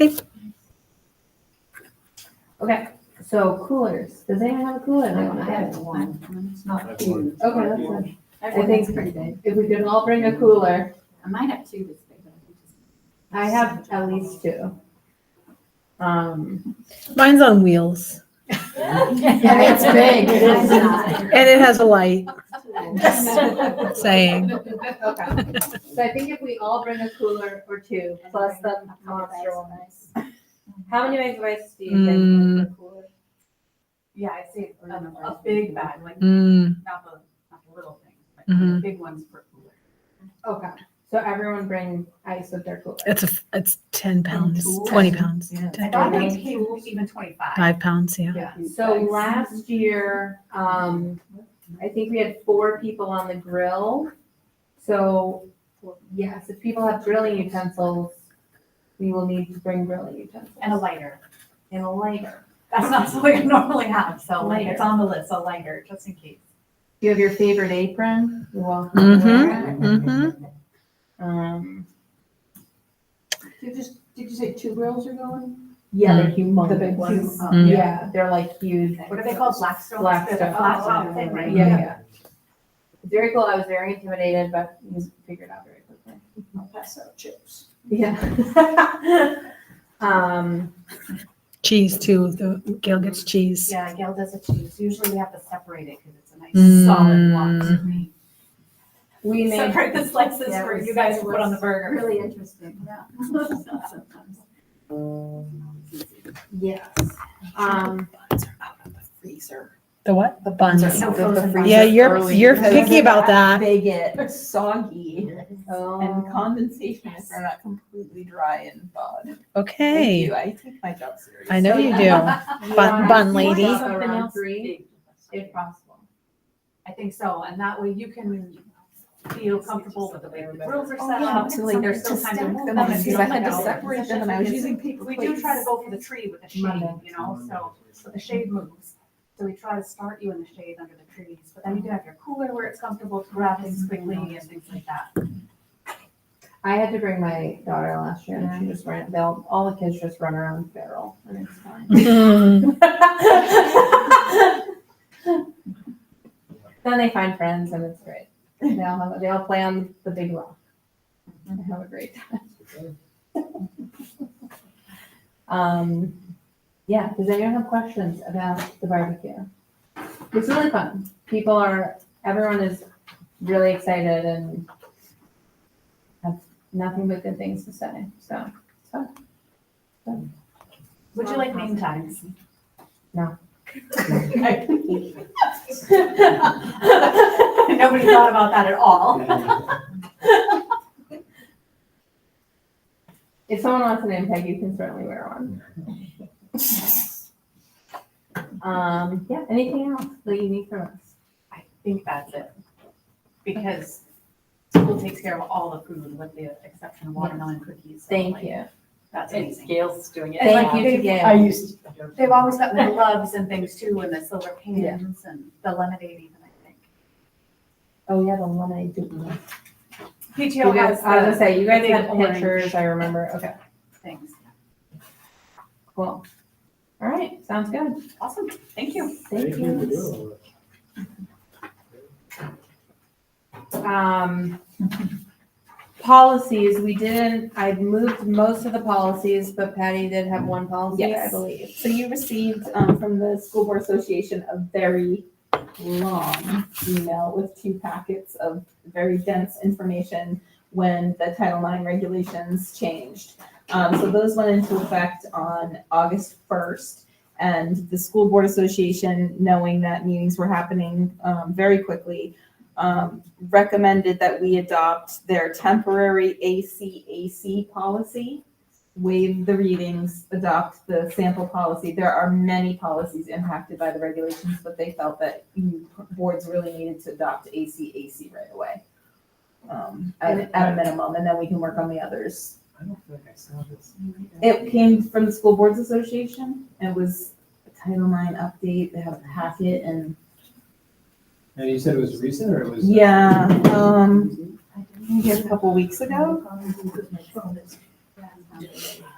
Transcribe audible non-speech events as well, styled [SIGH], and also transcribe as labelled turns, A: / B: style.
A: Okay.
B: Okay, so coolers, does anyone have a cooler? I don't have one.
C: It's not
D: That's one.
C: huge.
B: Okay, that's one.
C: I
B: I
C: think it's
B: think
C: pretty big.
B: if we could all bring a cooler,
C: I might have two this big, but I think it's.
B: I have at least two.
C: [LAUGHS]
B: Um,
A: Mine's on wheels
B: and it's big, it is not.
A: and it has a light saying,
B: Okay, [LAUGHS] so I think if we all bring a cooler or two, plus the monster one. How many bags of ice do you think?
A: Mm.
B: for a cooler?
C: Yeah, I see a, a big bag, like
A: mm,
C: not the, not the little thing, but
A: Mhm.
C: the big ones for cooler.
B: Okay, so everyone bring ice with their cooler.
A: it's a, it's 10 pounds,
C: tools.
A: 20 pounds,
E: Yeah.
A: 10,
C: thought
B: they
C: they came even twenty-five.
A: 5 pounds, yeah.
B: Yeah, so last year, um, I think we had four people on the grill. So, yes, if people have grilling utensils, we will need to bring grilling utensils.
C: And a lighter.
B: And a lighter.
C: That's not something I normally have, so like,
B: Lighter.
C: it's on the list, a lighter, just in case.
B: Do you have your favorite apron? You're welcome. to wear
A: Mm-hmm, mm-hmm.
B: it. Um,
E: Did you just, did you say two girls are going?
B: yeah, they're humongous.
E: The big ones.
B: Huge. uh,
A: Mm.
B: Yeah, they're like huge.
C: What are they called, Blackstone?
B: Blackstone.
C: They're the Blackstone Oh, thing,
B: Yeah,
C: right?
B: yeah. It's Very cool. I was very intimidated, but we figured out very quickly.
E: I'll pass out chips.
B: Yeah. [LAUGHS] um,
A: Cheese too, the, Gail gets cheese.
C: Yeah, Gail does a cheese. Usually we have to separate it because it's a
A: Mm.
C: nice solid block.
B: we
C: We
B: made
C: separate the slices
E: Yeah,
C: for
E: it
C: you
E: was-
C: guys
E: it
C: to put on the burger.
E: Really interesting.
C: [LAUGHS]
B: yes. Um,
E: Buns are out of the freezer.
A: The what? The buns.
C: so frozen buns.
A: Yeah, you're, you're picky about that.
E: They get soggy
B: oh,
E: and condensation if they're not completely dry and thawed. Thank
A: Okay,
E: you. I take my job seriously.
A: I know you do.
B: we
A: bun-
B: want
A: bun
B: to
A: lady.
B: keep it Around three, if possible.
C: I think so, and that way you can feel comfortable with the way the grills are
E: Oh,
C: set
E: yeah,
C: up.
E: to like,
C: There's
E: to
C: still time
E: stack
C: to
E: them
C: move them. if you
E: because I
C: don't
E: had to
C: know.
E: separate them and I was using paper
C: We
E: plates.
C: do try to go for the tree with the shade,
B: Monday.
C: you know,
D: Um,
C: so, so the shade moves. So we try to start you in the shade under the trees, but then you can have your cooler where it's comfortable to grab
E: Mm-hmm.
C: things quickly and things like that.
B: I had to bring my daughter last year, and she just ran. They'll all the kids just run around the barrel, and it's fine.
A: [LAUGHS] Mm.
B: [LAUGHS] then they find friends, and it's great. They all have, they all play on the big rock. and have a great time. [LAUGHS] Um, yeah, does anyone have questions about the barbecue? It's really fun. People are, everyone is really excited and have nothing but good things to say, so.
C: Would you like name tags?
B: No.
C: Okay.
E: [LAUGHS]
C: [LAUGHS] Nobody thought about that at all.
B: If someone wants an name tag, you can certainly wear [LAUGHS] one. Um, yeah, anything else that you need from us?
C: I think that's it. Because school takes care of all the food with the exception of watermelon cookies. so,
B: Thank
C: like,
B: you.
C: That's
F: It's
C: amazing.
F: Gail's doing it.
B: Thank
F: now.
B: you to Gail.
E: used
C: They've always got the gloves and things too and the silver
B: Yeah.
C: pans and the lemonade even, I think.
B: Oh, yeah, the one I do. You
C: PTO
B: guys,
C: has
B: I was gonna
C: the
B: say, you guys
C: big
B: had
C: orange.
B: pictures, I remember. Okay,
C: things.
B: cool. All right, sounds good.
C: Awesome. Thank you.
B: Thank you. Um, policies, we didn't, I moved most of the policies, but Patty did have one policy, I
E: Yes.
B: believe.
E: So you received um, from the School Board Association a very long email with two packets of very dense information when the Title IX regulations changed. Um, so those went into effect on August first. And the School Board Association, knowing that meetings were happening um, very quickly, um, recommended that we adopt their temporary ACAC policy waive the readings, adopt the sample policy. There are many policies impacted by the regulations, but they felt that you- boards really needed to adopt ACAC right away. Um, at, at a minimum, and then we can work on the others.
D: I don't think I saw this.
E: It came from the School Boards Association. It was a Title IX update. They had a packet and,
D: And you said it was recent or it was? uh,
E: yeah, um, maybe a couple weeks ago.